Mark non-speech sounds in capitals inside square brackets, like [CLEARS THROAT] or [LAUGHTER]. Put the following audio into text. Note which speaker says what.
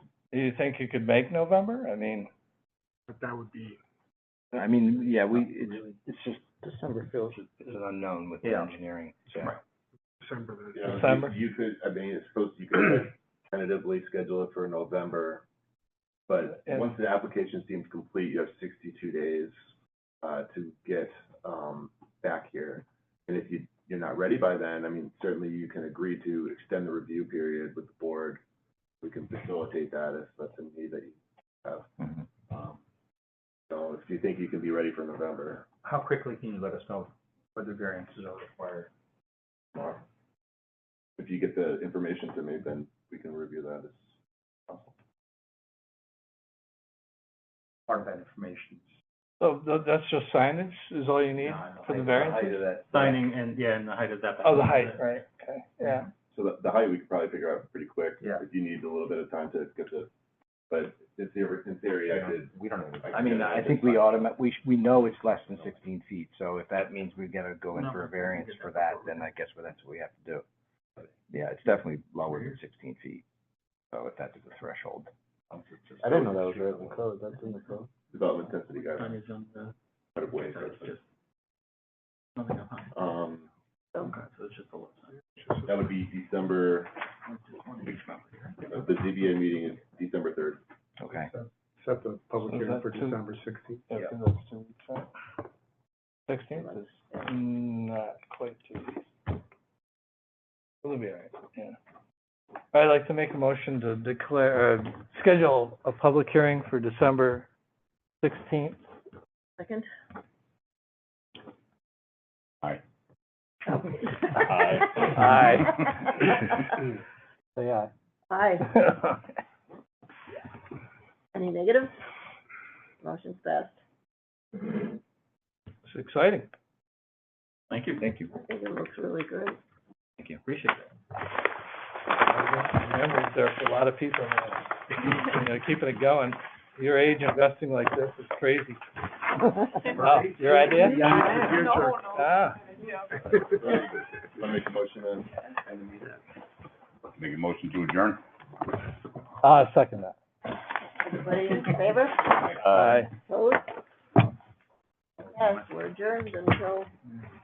Speaker 1: Do you think you could make November? I mean,
Speaker 2: but that would be,
Speaker 3: I mean, yeah, we, it's,
Speaker 4: Really.
Speaker 3: it's just,
Speaker 4: December feels.
Speaker 3: it's an unknown with the
Speaker 4: Yeah.
Speaker 3: engineering, so.
Speaker 4: Right.
Speaker 2: December the
Speaker 5: Yeah, you-
Speaker 1: December?
Speaker 5: You could, I mean, it's supposed, you could [CLEARS THROAT] tentatively schedule it for November, but
Speaker 1: And-
Speaker 5: once the application seems complete, you have sixty-two days, uh, to get, um, back here. And if you, you're not ready by then, I mean, certainly you can agree to extend the review period with the board. We can facilitate that if that's a need that you have.
Speaker 1: Mhm.
Speaker 5: Um, So if you think you can be ready for November,
Speaker 3: How quickly can you let us know whether variances are required?
Speaker 5: or if you get the information to me, then we can review that as possible.
Speaker 3: Part of that information.
Speaker 1: so th- that's just signage is all you need for the variance?
Speaker 4: Signing and, yeah, and the height of that.
Speaker 1: Oh, the height, right, okay, yeah.
Speaker 5: So the, the height we could probably figure out pretty quick.
Speaker 3: Yeah.
Speaker 5: If you need a little bit of time to get the, but in theory, in theory, I could.
Speaker 3: We don't
Speaker 5: I
Speaker 3: I
Speaker 5: could
Speaker 3: mean,
Speaker 5: get it
Speaker 3: I
Speaker 5: at
Speaker 3: think
Speaker 5: this
Speaker 3: we
Speaker 5: time.
Speaker 3: automa, we, sh- we know it's less than sixteen feet, so if that means we gotta go in for a variance for that, then I guess well, that's what we have to do. Yeah, it's definitely lower than sixteen feet, so if that's the threshold.
Speaker 4: I didn't know that was written in code, that's in the code.
Speaker 5: Development density guidelines,
Speaker 4: Signage on the,
Speaker 5: out of ways,
Speaker 4: so it's
Speaker 5: that's-
Speaker 4: just. Nothing on height.
Speaker 5: um,
Speaker 4: Okay, so it's just a little sign.
Speaker 5: that would be December, uh, the ZBA meeting is
Speaker 4: [LAUGHS]
Speaker 5: December third.
Speaker 3: Okay.
Speaker 2: set the public
Speaker 1: So is
Speaker 2: hearing
Speaker 1: that
Speaker 2: for
Speaker 1: two-
Speaker 2: December sixteenth.
Speaker 3: Mm-hmm.
Speaker 1: Okay, that's two weeks out. Sixteenth is not quite two weeks. It'll be all right, yeah. I'd like to make a motion to declare, uh, schedule a public hearing for December sixteenth.
Speaker 6: Second?
Speaker 3: Aye.
Speaker 6: Oh. Aye. [LAUGHS]
Speaker 3: Aye.
Speaker 4: Say aye.
Speaker 6: Aye.
Speaker 3: [LAUGHS]
Speaker 6: Any negatives? Motion's passed.
Speaker 1: It's exciting.
Speaker 4: Thank you. Thank you.
Speaker 6: I think it looks really good.
Speaker 3: Thank you, appreciate it.
Speaker 1: Memories there for a lot of people, man. you know, keeping it going. Your age investing like this is [LAUGHS] crazy. Wow, your idea? Ah,
Speaker 5: Wanna make a motion then?
Speaker 7: Make a motion to adjourn?
Speaker 1: ah, second that.
Speaker 6: Everybody in favor?
Speaker 1: Aye.
Speaker 6: Opposed? Yes, we're adjourned until